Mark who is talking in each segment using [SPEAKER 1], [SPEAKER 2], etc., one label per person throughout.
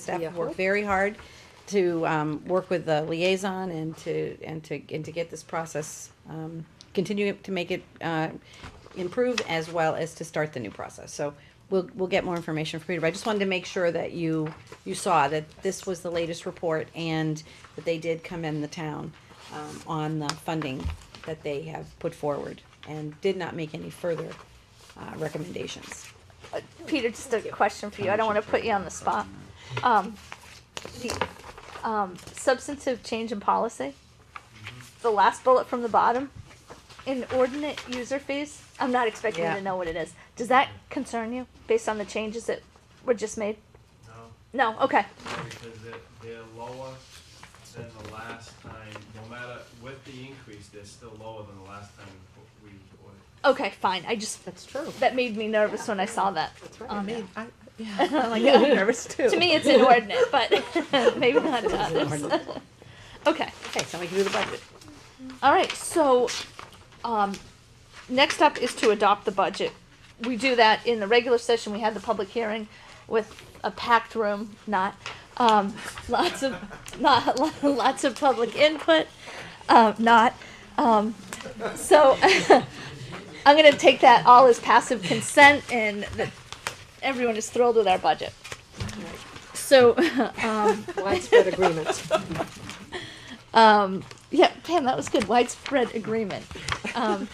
[SPEAKER 1] Staff
[SPEAKER 2] Yeah.
[SPEAKER 1] have worked very hard to um, work with the liaison and to, and to, and to get this process, um, continue to make it uh, improve as well as to start the new process. So we'll, we'll get more information from Peter, but I just wanted to make sure that you, you saw that this was the latest report and that they did come in the town um, on the funding that they have put forward and did not make any further uh, recommendations.
[SPEAKER 2] Peter, just a question for you. I don't want to put you on the spot. Um, the, um, substantive change in policy, the last bullet from the bottom, inordinate user fees. I'm not expecting you
[SPEAKER 1] Yeah.
[SPEAKER 2] to know what it is. Does that concern you based on the changes that were just made?
[SPEAKER 3] No,
[SPEAKER 2] No, okay.
[SPEAKER 3] no, because they're, they're lower than the last time, no matter, with the increase, they're still lower than the last time we ordered.
[SPEAKER 2] Okay, fine. I just,
[SPEAKER 4] That's true.
[SPEAKER 2] that made me nervous when I saw that.
[SPEAKER 4] I mean, I, yeah, I'm like, I'm nervous too.
[SPEAKER 2] To me, it's inordinate, but maybe not to others. Okay.
[SPEAKER 1] Okay, so we can do the budget.
[SPEAKER 2] All right, so, um, next up is to adopt the budget. We do that in the regular session, we had the public hearing with a packed room, not, um, lots of, not, lots of public input, uh, not, um, so, I'm gonna take that all as passive consent and that everyone is thrilled with our budget. So, um,
[SPEAKER 4] Widespread agreement.
[SPEAKER 2] um, yeah, Pam, that was good. Widespread agreement. Um,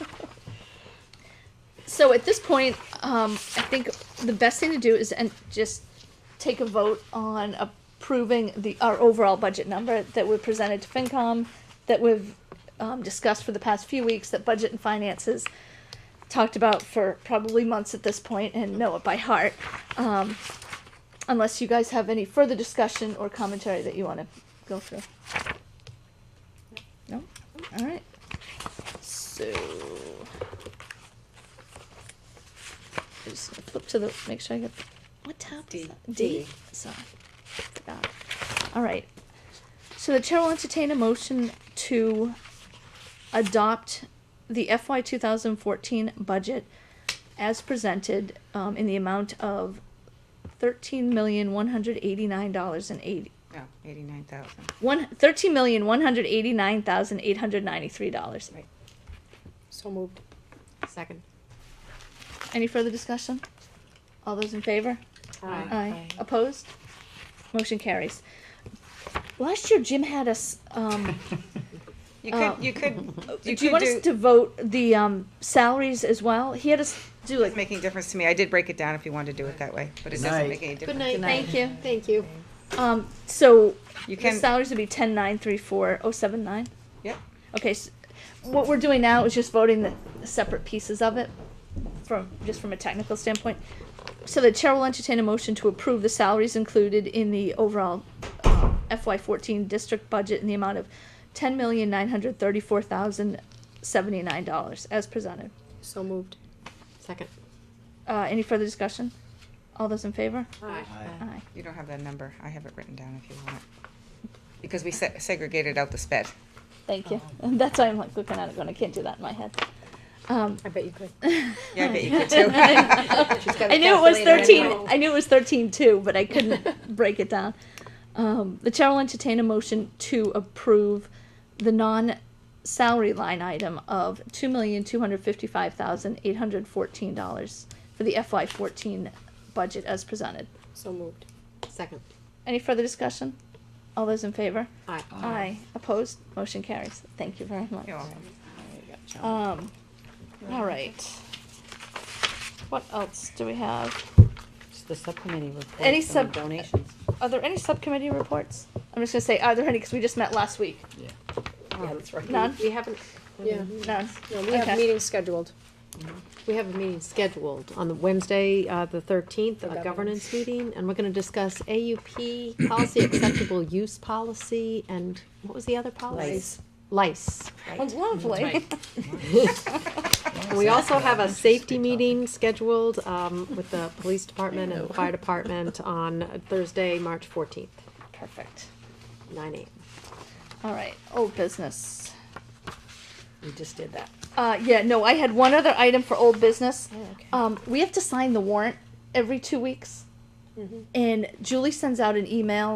[SPEAKER 2] so at this point, um, I think the best thing to do is and just take a vote on approving the our overall budget number that we presented to FinCom, that we've um, discussed for the past few weeks, that budget and finances talked about for probably months at this point and know it by heart. Um, unless you guys have any further discussion or commentary that you want to go through. No? Alright. So. I'm just gonna flip to the, make sure I get, what tab is that? D, sorry. Forgot. Alright. So the chair will entertain a motion to adopt the FY two thousand fourteen budget as presented, um, in the amount of thirteen million, one hundred eighty-nine dollars and eighty,
[SPEAKER 1] Oh, eighty-nine thousand.
[SPEAKER 2] one thirteen million one hundred eighty nine thousand eight hundred ninety three dollars.
[SPEAKER 4] So moved. Second.
[SPEAKER 2] Any further discussion? All those in favor?
[SPEAKER 4] Aye.
[SPEAKER 2] Opposed? Motion carries. Last year, Jim had us. Um,
[SPEAKER 5] You
[SPEAKER 2] Uh,
[SPEAKER 5] could, you could,
[SPEAKER 2] do
[SPEAKER 5] you
[SPEAKER 2] you
[SPEAKER 5] could
[SPEAKER 2] want us
[SPEAKER 5] do,
[SPEAKER 2] to vote the um, salaries as well? He had us do
[SPEAKER 5] it's
[SPEAKER 2] like.
[SPEAKER 5] making a difference to me. I did break it down if you wanted to do it that way, but it doesn't make any difference.
[SPEAKER 4] night.
[SPEAKER 2] Thank you.
[SPEAKER 4] Thank you.
[SPEAKER 2] Um, so
[SPEAKER 5] You
[SPEAKER 2] the
[SPEAKER 5] can,
[SPEAKER 2] salaries would be ten nine three four oh seven nine.
[SPEAKER 5] yep,
[SPEAKER 2] Okay, so what we're doing now is just voting the separate pieces of it from, just from a technical standpoint. So the chair will entertain a motion to approve the salaries included in the overall FY fourteen district budget in the amount of ten million nine hundred thirty-four thousand seventy-nine dollars as presented.
[SPEAKER 4] So moved. Second.
[SPEAKER 2] Uh, any further discussion? All those in favor?
[SPEAKER 4] Aye.
[SPEAKER 2] Aye.
[SPEAKER 5] you don't have that number. I have it written down if you want it. Because we se- segregated out the sped.
[SPEAKER 2] Thank you. That's why I'm like looking at it going, I can't do that in my head. Um,
[SPEAKER 4] I bet you could.
[SPEAKER 5] Yeah, I bet you could too.
[SPEAKER 2] I knew it was thirteen. I knew it was thirteen two, but I couldn't break it down. Um, the chair will entertain a motion to approve the non-salary line item of two million two hundred fifty-five thousand eight hundred fourteen dollars for the FY fourteen budget as presented.
[SPEAKER 4] So moved. Second.
[SPEAKER 2] Any further discussion? All those in favor?
[SPEAKER 4] Aye.
[SPEAKER 2] Aye. Opposed? Motion carries. Thank you very much.
[SPEAKER 5] You're welcome.
[SPEAKER 2] Um, all right. What else do we have?
[SPEAKER 1] The subcommittee report.
[SPEAKER 2] Any sub-
[SPEAKER 1] donations.
[SPEAKER 2] Are there any subcommittee reports? I'm just gonna say, are there any, because we just met last week.
[SPEAKER 1] Yeah, that's right.
[SPEAKER 2] None?
[SPEAKER 4] We haven't, yeah,
[SPEAKER 2] None.
[SPEAKER 4] no, we have
[SPEAKER 2] Okay.
[SPEAKER 4] meetings scheduled. We have a meeting scheduled on the Wednesday, uh, the thirteenth, a governance meeting, and we're gonna discuss AUP, policy acceptable use policy, and what was the other policies? Lice.
[SPEAKER 2] Oh, Lovely.
[SPEAKER 4] And We also have a safety meeting scheduled um, with the police department and the fire department on Thursday, March fourteenth,
[SPEAKER 2] Perfect.
[SPEAKER 4] nine AM.
[SPEAKER 2] All right, old business.
[SPEAKER 1] We just did that.
[SPEAKER 2] Uh, yeah, no, I had one other item for old business. Um, we have to sign the warrant every two weeks. And Julie sends out an email